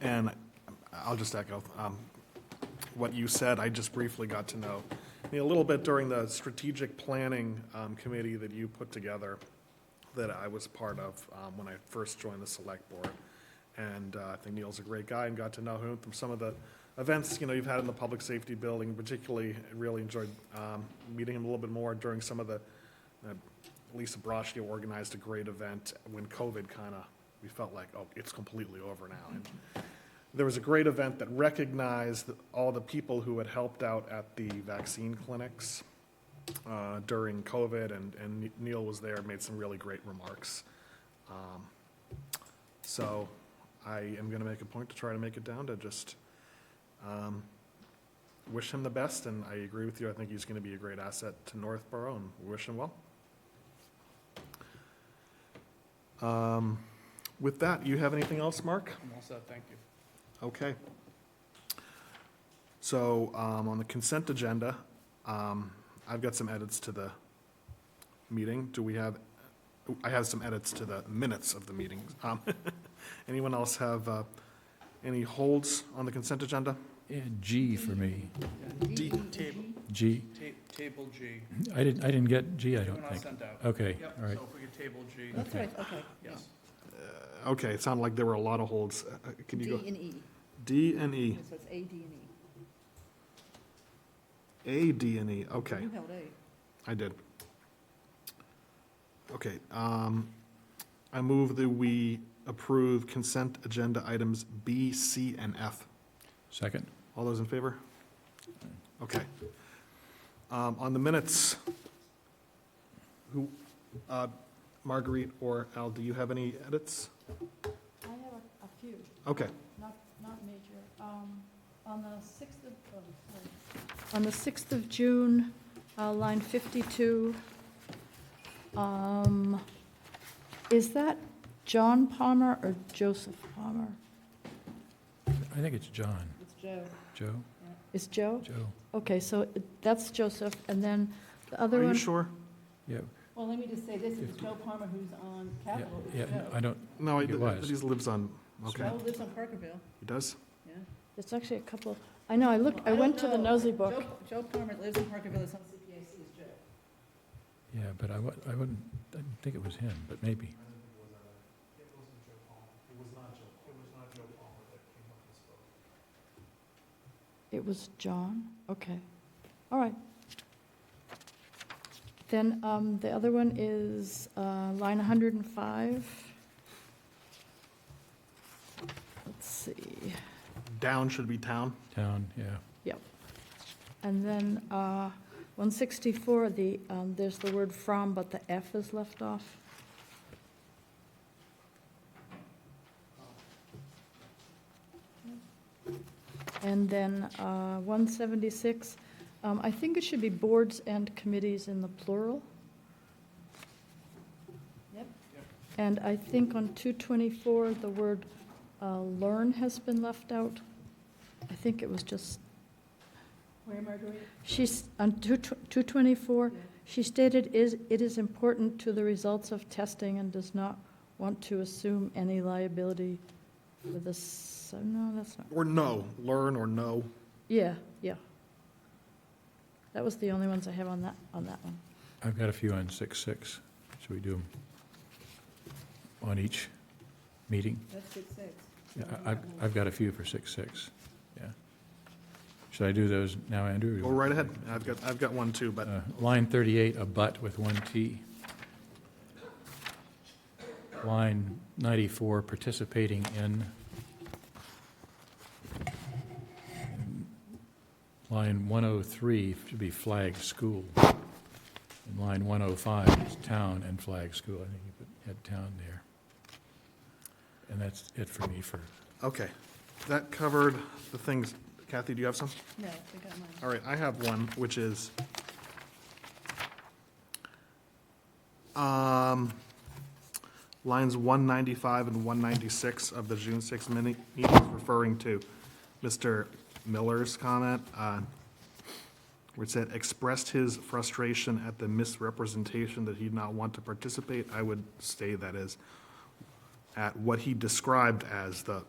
And I'll just echo um, what you said, I just briefly got to know me a little bit during the strategic planning um, committee that you put together that I was part of um, when I first joined the select board. And uh, I think Neil's a great guy and got to know him from some of the events, you know, you've had in the public safety building, particularly, I really enjoyed um, meeting him a little bit more during some of the, uh, Lisa Broschke organized a great event when COVID kind of, we felt like, oh, it's completely over now. And there was a great event that recognized all the people who had helped out at the vaccine clinics uh, during COVID, and, and Neil was there, made some really great remarks. Um, So I am going to make a point to try to make it down to just um, wish him the best, and I agree with you, I think he's going to be a great asset to Northborough, and wish him well. Um, With that, you have anything else, Mark? I'm all set, thank you. Okay. So, um, on the consent agenda, um, I've got some edits to the meeting. Do we have, I have some edits to the minutes of the meeting. Um, anyone else have, uh, any holds on the consent agenda? Yeah, G for me. D, table, G. ta- table G. I didn't, I didn't get G, I The don't one I think. sent out. Okay, Yep, all right. so if we could table G, That's Okay. right, okay. yes. Okay, it sounded like there were a lot of holds. Uh, uh, Can D you go? and E, D and E, so it's A, D, and E. A, D and E, okay. You held A. I did. Okay, um, I move that we approve consent agenda items B, C, and F. Second? All those in favor? Okay. Um, on the minutes, who, uh, Marguerite or Al, do you have any edits? I have a- a few, Okay, not, not major. Um, On the 6th of, oh, sorry. on the 6th of June, uh, line 52, um, is that John Palmer or Joseph Palmer? I think it's John. It's Joe. Joe? Is Joe? Joe? Okay, so that's Joseph, and then the other are you one, sure? Yeah, Well, let me just say this, it's Joe Palmer who's on yeah, Capitol. yeah, I don't, No, I, It was. he lives on, okay, Joe lives on Parkerville, he does? yeah. there's actually a couple, I know, I looked, I don't went to the know. nosy book. Joe- Joe Palmer lives in Parkerville, it's on CPAC, is Joe. yeah, but I wa- I wouldn't, I didn't think it was him, but maybe. It was John? Okay. All right. Then um, the other one is uh, line 105. Let's see. Down should be town. Town, yeah. And then uh, 164, the, um, there's the word "from," but the F is left off. And then uh, 176, um, I think it should be boards and committees in the plural. Yep. Yep. And I think on 224, the word uh, "learn" has been left out. I think it was just Where, Marguerite? She's, on two two 224, Yeah. she stated, "Is it is important to the results of testing and does not want to assume any liability for the, s- oh, no, that's not, Or no, learn or no. yeah, yeah. That was the only ones I have on that, on that one. I've got a few on six, six. Should we do them on each meeting? That's six, six. Yeah, I- I've, I've got a few for six, six, yeah. Should I do those now, Andrew? or you Go want- right ahead, I've got, I've got one too, but Uh, Line 38, a but with one T. Line 94, participating in. Line 103 should be flag school. And line 105 is town and flag school. I think you put had town there. And that's it for me for, Okay, that covered the things. Kathy, do you have some? No, I got mine. All right, I have one, which is, um, lines 195 and 196 of the June 6 mini, meeting, referring to Mr. Miller's comment, uh, where it said, expressed his frustration at the misrepresentation that he'd not want to participate. I would say that is at what he described as the